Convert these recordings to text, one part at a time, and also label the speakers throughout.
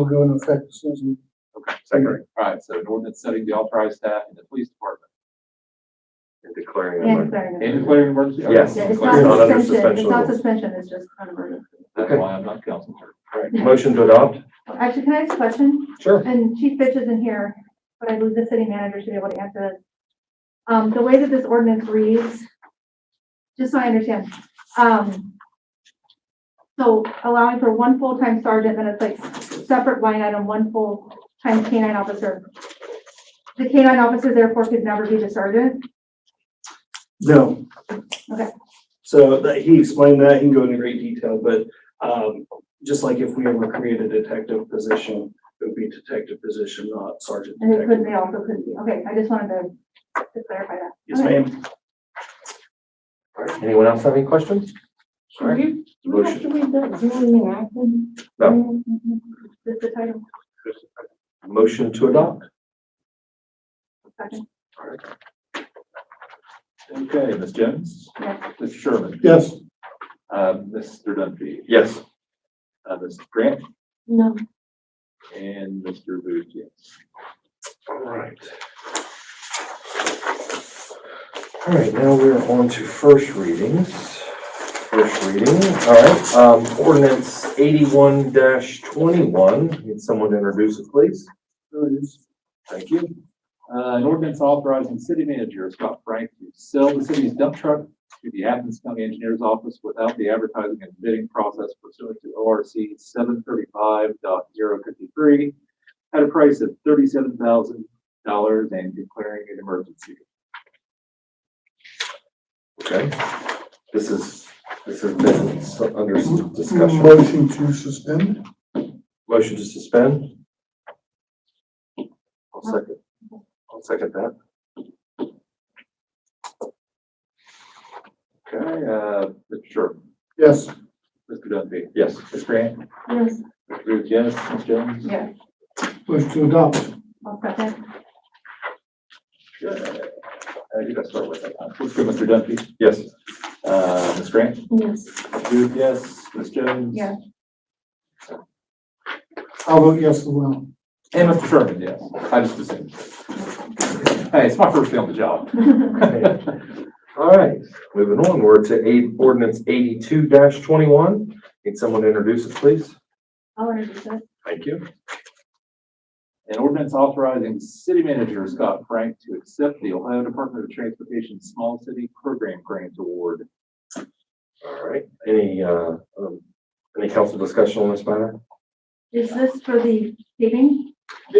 Speaker 1: will go into effect as soon as we
Speaker 2: Okay, second, all right, so an ordinance setting the authorized staff in the police department
Speaker 3: and declaring. an
Speaker 4: And
Speaker 3: emergency.
Speaker 4: declaring
Speaker 2: and
Speaker 4: it.
Speaker 2: declaring an emergency. Okay,
Speaker 3: Yes.
Speaker 4: Yeah, it's
Speaker 3: It's not
Speaker 4: not suspension,
Speaker 3: under
Speaker 4: it's
Speaker 3: suspension
Speaker 4: not
Speaker 3: rules.
Speaker 4: suspension, it's just kind of a.
Speaker 2: That's why I'm not council chair.
Speaker 3: All right, motion to adopt?
Speaker 4: Actually, can I ask a question?
Speaker 3: Sure.
Speaker 4: And Chief Fitch isn't here, but I believe the city manager should be able to answer this. Um, the way that this ordinance reads, just so I understand, um, so allowing for one full-time sergeant, then it's like separate line item, one full-time canine officer. The canine officer therefore could never be the sergeant?
Speaker 5: No.
Speaker 4: Okay.
Speaker 5: So that, he explained that, he can go into great detail, but, um, just like if we ever create a detective position, it would be detective position, not sergeant
Speaker 4: And it couldn't,
Speaker 5: detective.
Speaker 4: they also couldn't be, okay, I just wanted to to clarify that.
Speaker 5: Yes, ma'am.
Speaker 3: All right, anyone else have any questions? Sorry.
Speaker 4: Mm-hmm.
Speaker 6: Do we have to read that zoning and acting?
Speaker 3: No.
Speaker 4: Just the title,
Speaker 3: Motion to adopt?
Speaker 4: second,
Speaker 2: Okay, Ms. Jones,
Speaker 4: yes.
Speaker 2: Mr. Sherman,
Speaker 1: Yes.
Speaker 2: uh, Mr. Dunphy,
Speaker 3: Yes.
Speaker 2: uh, Ms. Grant,
Speaker 6: No.
Speaker 2: and Mr. Booth, yes.
Speaker 3: All right. All right, now we're on to first readings. First reading, all right, um, ordinance eighty-one twenty-one. Need someone to introduce it, please?
Speaker 1: There it is.
Speaker 2: Thank you. Uh, an ordinance authorizing city manager Scott Frank to sell the city's dump truck to the Athens County Engineer's Office without the advertising and bidding process pursuant to O R C seven thirty-five at a price of thirty-seven thousand dollars and declaring an emergency.
Speaker 3: Okay. This is, this has been s- under s- discussion.
Speaker 1: Motion to suspend?
Speaker 3: Motion to suspend? I'll second. I'll second that.
Speaker 2: Okay, uh, Mr. Sherman,
Speaker 1: Yes.
Speaker 2: Mr. Dunphy,
Speaker 3: Yes.
Speaker 2: Ms. Grant,
Speaker 4: Yes.
Speaker 2: Mr. Booth, yes, Ms. Jones?
Speaker 4: Yes.
Speaker 1: Motion to adopt?
Speaker 4: I'll second.
Speaker 2: Good. Uh, you gotta start with that. one. Let's go, Mr. Dunphy,
Speaker 3: Yes.
Speaker 2: uh, Ms. Grant?
Speaker 6: Yes.
Speaker 2: Booth, yes. Ms. Jones?
Speaker 4: Yes.
Speaker 1: I'll vote yes as well.
Speaker 2: And Mr. Sherman, yes. I just assumed. Hey, it's my first day on the job.
Speaker 3: All right, moving on, we're to eight, ordinance eighty-two twenty-one. Need someone to introduce it, please?
Speaker 4: I'll introduce it.
Speaker 3: Thank you.
Speaker 2: An ordinance authorizing city manager Scott Frank to accept the Ohio Department of Transportation Small City Program Grant Award.
Speaker 3: All right, any, uh, um, any council discussion on this matter?
Speaker 4: Is this for the paving?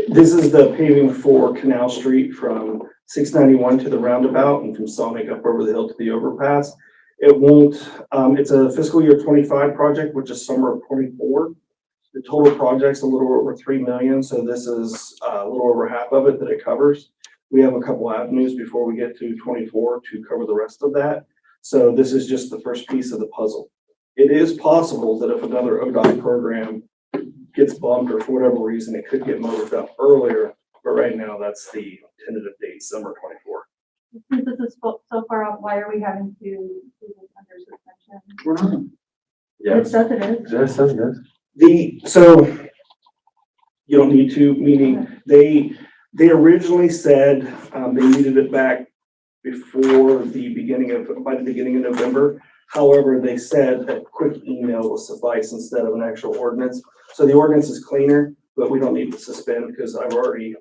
Speaker 5: This is the paving for Canal Street from six ninety-one to the roundabout and from Sonic up over the hill to the overpass. It won't, um, it's a fiscal year twenty-five project, which is summer of twenty-four. The total project's a little over three million, so this is uh, a little over half of it that it covers. We have a couple avenues before we get to twenty-four to cover the rest of that. So this is just the first piece of the puzzle. It is possible that if another ODOT program gets bumped or for whatever reason, it could get moved up earlier, but right now, that's the tentative date, summer twenty-four.
Speaker 4: Since this is fo- so far out, why are we having to do this under suspension? It
Speaker 3: Yes,
Speaker 4: says it is.
Speaker 3: yes, yes, yes.
Speaker 5: The, so you don't need to, meaning they, they originally said, um, they needed it back before the beginning of, by the beginning of November. However, they said a quick email will suffice instead of an actual ordinance. So the ordinance is cleaner, but we don't need to suspend because I've already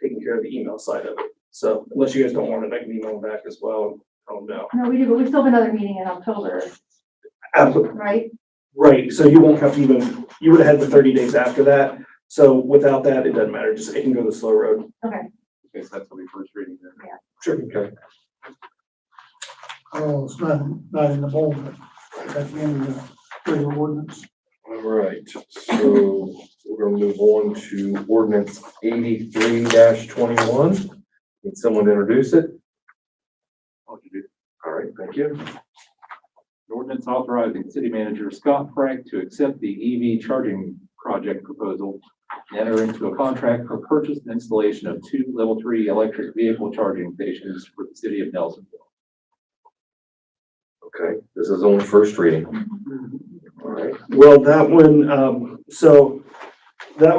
Speaker 5: taken care of the email side of it. So unless you guys don't want it, I can email them back as well. Oh, no.
Speaker 4: No, we do, but we still have another meeting in October,
Speaker 5: Absolutely.
Speaker 4: right?
Speaker 5: Right, so you won't have to even, you would have had the thirty days after that, so without that, it doesn't matter, just, it can go the slow road.
Speaker 2: Okay, so that's what we first reading there.
Speaker 5: Sure.
Speaker 3: Okay,
Speaker 1: Oh, it's not, not in the bold, but at the end of the regular ordinance.
Speaker 3: all right, so we're gonna move on to ordinance eighty-three twenty-one. Need someone to introduce it?
Speaker 2: What you do?
Speaker 3: All right, thank you.
Speaker 2: An ordinance authorizing city manager Scott Frank to accept the EV charging project proposal and enter into a contract for purchase and installation of two level three electric vehicle charging stations for the city of Nelsonville.
Speaker 3: Okay, this is on first reading. All right,
Speaker 5: Well, that one, um, so